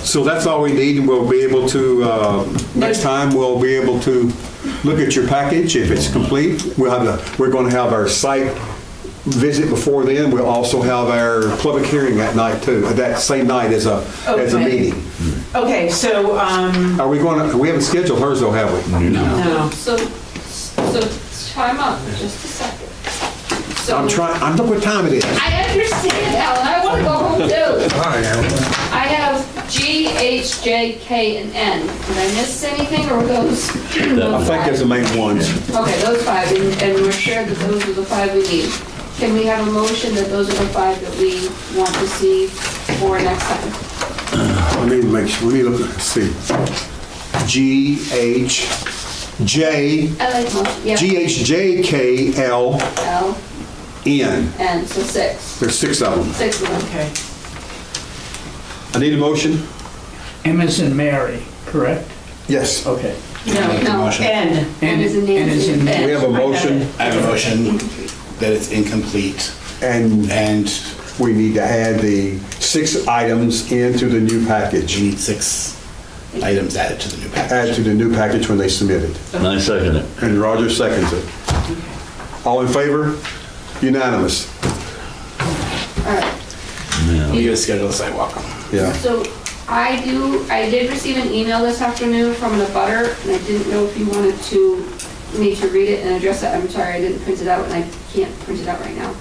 So that's all we need, and we'll be able to, uh, next time, we'll be able to look at your package, if it's complete. We'll have, the we're going to have our site visit before then, we'll also have our public hearing that night too, Uh, that same night as a, as a Okay. meeting. Okay, so, um, Are we going to, we haven't scheduled hers though, have we? no. So, so time out, just a second. So- I'm trying, I'm, look what time it is. I understand, Alan, I want to go home too. I have G, H, J, K, and N. Did I miss anything, or were those? I think those five? that's the main ones. Okay, those five, and and we're sure that those are the five we need. Can we have a motion that those are the five that we want to see for next time? Let me make sure, let me look, and see. G, H, J, I like motion, yeah. G, H, J, K, L, L, N. N, so six, There's six of them. six of them. Okay. I need a motion? M is in Mary, correct? Yes. Okay. No, no, N. N is in N is in Nancy. We have a motion I have a motion that it's incomplete and and we need to add the six items into the new you package. need six items added to the new Add package. to the new package when they submit it. And I second it. And Roger seconds it. All in favor? Unanimous. All right. We need to schedule a sidewalk. Yeah. So I do, I did receive an email this afternoon from the butter, and I didn't know if you wanted to, me to read it and address it. I'm sorry, I didn't print it out, and I can't print it out right now.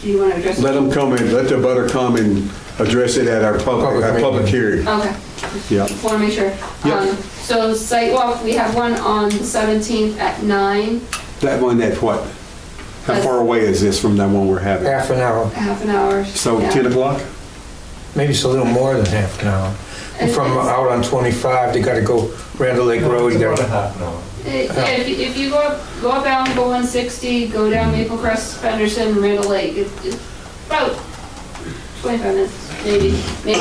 Do you want to address it? Let them come and, let the butter come and address it at our public, our public hearing. Okay, Yeah. just want to make sure. Yep. Um, So site walk, we have one on the 17th at nine, That one, that what? How far away is this from that one we're having? half an hour, half an hour. So Yeah. 10 o'clock? maybe it's a little more than half an hour. And From it's- out on 25, they gotta go Randall Lake Road, you gotta, Eh, Yeah, if you- if you go up, go up Allenville 160, go down Maple Crest, Fenderson, Randall Lake, it's it's about 25 minutes, maybe, maybe.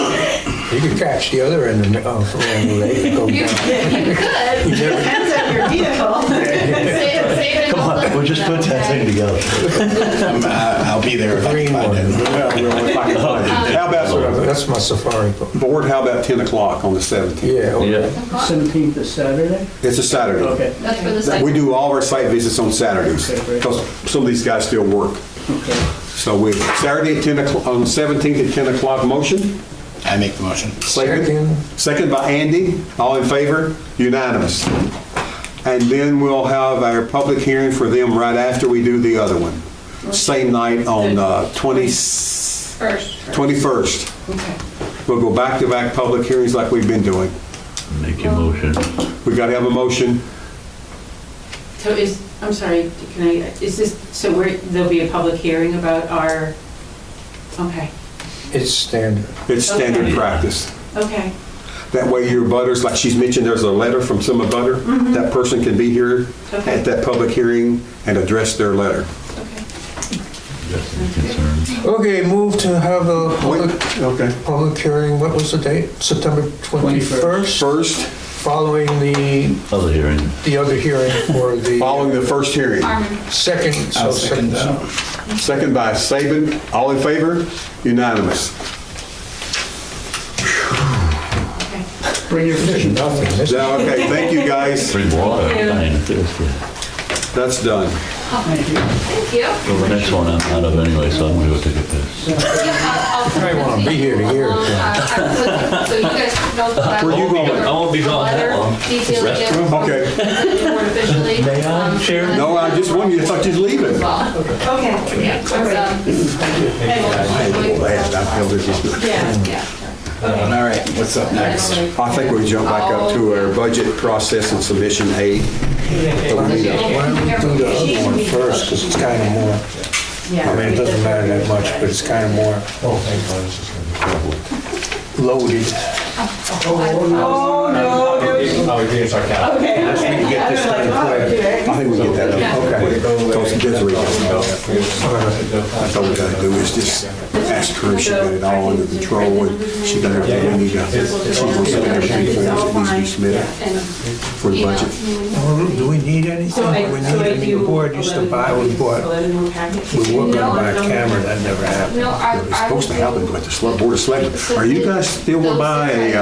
you could catch the other end of of Randall Lake and go You you could. down. Save Depends on your vehicle. save it. Come on, we'll just put that thing together. Um, uh, I'll be there if I can find it. Well, well, if I can find it. How about, That's my safari book. board, how about 10 o'clock on the 17th? Yeah, okay. Yeah. together. 17th is Saturday? It's a Saturday. Okay. That's for the site. We do all of our site visits on Saturdays, Okay, great. because some of these guys still work. Okay. So we, Saturday at 10 o'clock, on the 17th at 10 o'clock, motion? I make the motion. Second. Second by Andy, all in favor? Unanimous. And then we'll have our public hearing for them right after we do the other one. Same night on uh, 20, First. 21st. Okay. We'll go back-to-back public hearings like we've been doing. Make your motion. We gotta have a motion. So is, I'm sorry, can I, is this, so we're, there'll be a public hearing about our, okay, It's standard. It's standard Okay. practice. okay. That way your butters, like she's mentioned, there's a letter from some abutter. That person can be here Okay. at that public hearing and address their letter. Just any concerns. Okay, move to have a public- Okay. public hearing, what was the date? September 21st, First, following the, Other hearing. the other hearing for following the the first hearing. Armin. second. I'll Oh, so second that. Second by Saban. All in favor? Unanimous. Bring your fishing Nothing. This- Now, okay, thank you, guys. Bring water. Fine, if there's the- That's done. Thank you. Well, the next one I'm out of anyway, so I'm gonna go take a piss. I wanna be here to hear Uh, it. So you guys know that. Where you going? I won't be gone that Letter long. detailing it. Okay. More officially. May I Um, share? No, I just wondered, you thought you'd leave it. Well, Okay, yeah, it's, um, I feel this is- yeah. yeah. All right, what's up next? I think we jump back up to our budget process and submission aid. Why don't we do the other one first, because it's kind of more, I mean, it doesn't matter that much, but it's kind of more loaded. Oh, no, no. Okay, okay. can get this done quick. I think we get that up. Okay. Because Desiree doesn't know. That's all we gotta do is just ask her if she got it all under control and she got everything we need to. She's gonna submit everything for us that needs to be submitted And for the budget. email. Well, Do we need anything? So I, We so I need, I mean, do. the board used to buy, we bought, Eleven more packets. we were No, gonna buy a no. camera, that never happened. No, I, It was I. supposed to happen, but the select board of selectmen, are you guys still gonna buy a uh,